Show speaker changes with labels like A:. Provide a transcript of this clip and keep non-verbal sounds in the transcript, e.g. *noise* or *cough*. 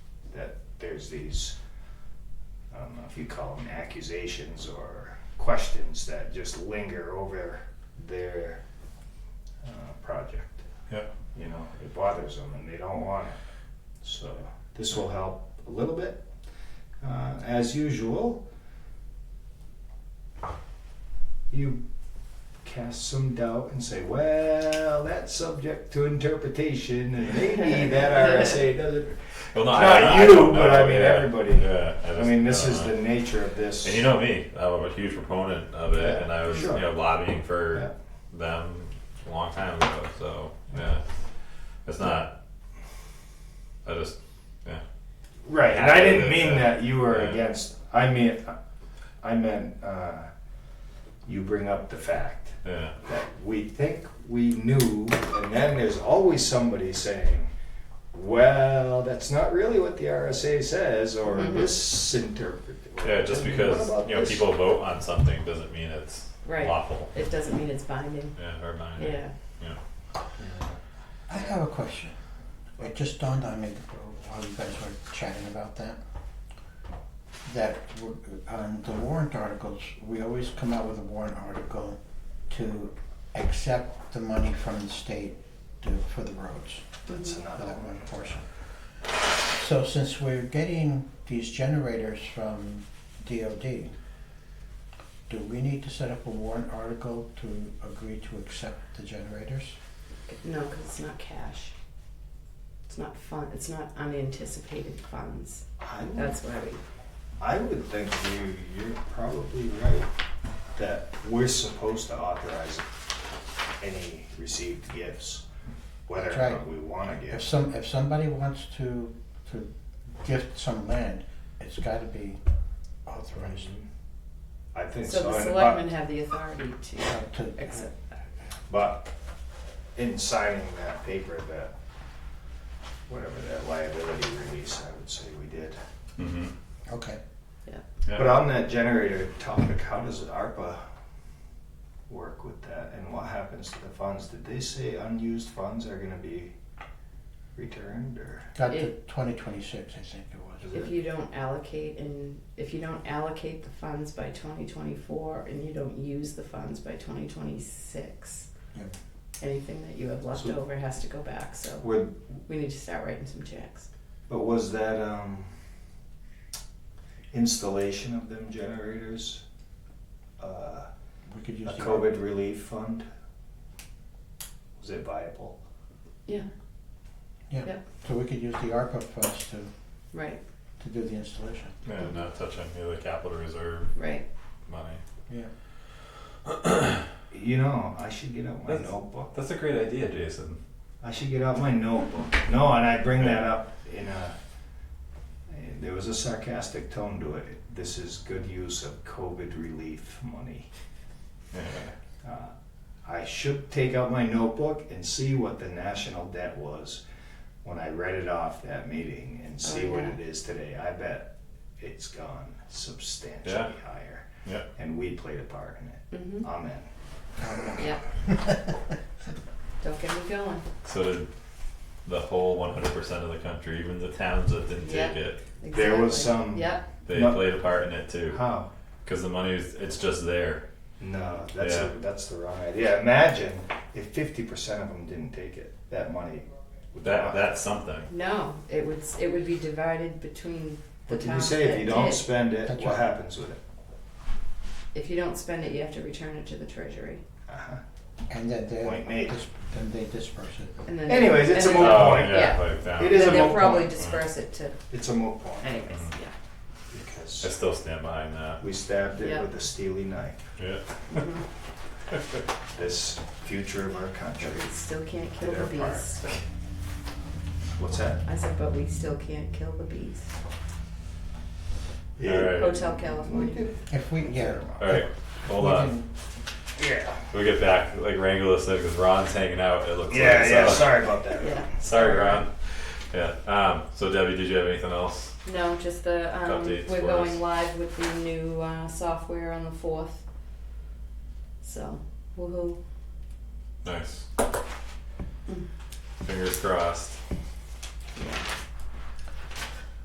A: there's these, I don't know if you call them accusations or questions that just linger over their uh, project.
B: Yeah.
A: You know, it bothers them and they don't want it. So this will help a little bit. Uh, as usual, you cast some doubt and say, well, that's subject to interpretation and maybe that RSA doesn't
B: Well,
A: Not
B: don't
A: you, but I
B: know,
A: mean
B: yeah.
A: everybody.
B: Yeah,
A: I
B: just
A: mean, this
B: don't
A: is
B: know.
A: the nature of this.
B: And you know me, I'm a huge proponent of it,
A: Yeah,
B: and I was
A: sure.
B: you know lobbying for
A: Yeah.
B: them a long time ago. So yeah, it's not. I just
A: right, and I didn't
B: Yeah.
A: mean that you were
B: Yeah.
A: against. I mean, I meant uh, you bring up the fact
B: yeah
A: that we think we knew, and then there's always somebody saying, "Well, that's not really what the RSA says," or
C: Mhm.
A: this interpret.
B: yeah just because you know people vote on something doesn't mean it's
C: Right.
B: lawful.
C: It doesn't mean it's binding.
B: Yeah, or binding.
C: Yeah.
D: I have a question. It just dawned on me while you guys were chatting about that. That w- on the warrant articles, we always come out with a warrant article to accept the money from the state to, for the roads,
A: That's
D: for
A: another
D: that
A: one.
D: one portion. So since we're getting these generators from DOD, do we need to set up a warrant article to agree to accept the generators?
C: No, because it's not cash. It's not fun. It's not unanticipated funds.
A: I would
C: That's why we.
A: I would think you, you're probably right that we're supposed to authorize any received gifts, whether or
D: That's
A: not
D: right.
A: we want a
D: If
A: gift.
D: some, if somebody wants to, to gift some land, it's gotta be authorized.
A: I think
C: So
A: so,
C: the
A: and
C: selectmen have the authority to
D: But to-
C: accept.
A: but, but in signing that paper, that, whatever that liability release, I would say we did.
B: Mm-hmm.
D: Okay,
B: yeah.
A: But on that generator topic, how does ARPA work with that, and what happens to the funds? Did they say unused funds are gonna be returned, or?
D: got to
C: It-
D: twenty twenty-six, I think it was.
C: If you don't allocate and if you don't allocate the funds by twenty twenty four and you don't use the funds by twenty twenty six,
D: Yep.
C: anything that you have left
A: So-
C: over has to go back. So
A: Were
C: we need to start writing some checks.
A: But was that um, installation of them generators uh,
D: We could
A: a
D: use the.
A: COVID relief fund? Was it viable?
C: Yeah,
D: Yeah,
C: Yep.
D: so we could use the ARPA funds to,
C: right,
D: to do the installation.
B: yeah, not touching you know, the capital reserve
C: right.
B: money.
D: Yeah.
A: You know, I should get out my
B: That's-
A: notebook.
B: That's a great idea, Jason.
A: I should get out my notebook. No, and I bring that up in a. There was a sarcastic tone to it. This is good use of COVID relief money.
B: Yeah.
A: Uh, I should take out my notebook and see what the national debt was when I read it off that meeting and see
C: Oh,
A: what
C: yeah.
A: it is today. I bet it's gone substantially
B: Yeah.
A: higher.
B: Yeah.
A: And we played a part in it.
C: Mm-hmm.
A: Amen.
C: Yeah. Don't get me going.
B: So did the whole 100% of the country, even the towns that didn't
C: Yeah.
B: take it,
A: There was
C: Exactly.
A: some-
C: Yep.
B: they
A: No.
B: played a part in it too.
A: How?
B: Because the money is, it's just there.
A: No, that's
B: Yeah.
A: a, that's the wrong idea. Imagine if fifty percent of them didn't take it. That money. would
B: That
A: not-
B: that's something.
C: No, it would s- it would be divided between the
A: What did you
C: towns
A: say? If
C: that
A: you don't
C: did.
A: spend it,
D: That's
A: what
D: right.
A: happens with it?
C: If you don't spend it, you have to return it to the treasury.
A: Uh-huh.
D: *laughs* And then
A: Point made.
D: they, dis- then they disperse it.
C: And then
A: Anyways, it's
C: and
A: a
C: then-
A: moot point.
B: Oh, yeah,
C: Yeah.
B: like that.
A: It is
C: then
A: a
C: they'll
A: moot
C: probably
A: point.
C: disperse it to
A: It's a moot point
C: anyways. Yeah.
B: I
A: because
B: still stand behind that.
A: we stabbed it
C: Yeah.
A: with a steely knife.
B: Yeah. *laughs*
C: Mhm.
A: this future of our country.
C: But we still can't kill the
A: They're part.
C: beast.
A: What's that?
C: I said, but we still can't kill the beast.
B: Yeah. Right.
C: Hotel California.
D: If we, yeah.
B: All right. Hold
D: we
B: on.
D: can-
A: Yeah.
B: We'll get back. Like wrangle this thing because Ron's hanging out. It looks
A: Yeah,
B: like.
A: yeah.
B: so-
A: Sorry about that.
C: Yeah.
B: Sorry, Ron. Yeah. Um. So Debbie, did you have anything else?
C: No, just the um,
B: Updates
C: we're
B: for
C: going
B: us.
C: live with the new uh, software on the fourth. So, woohoo! Mm.
B: Nice. Fingers crossed.
C: Yeah.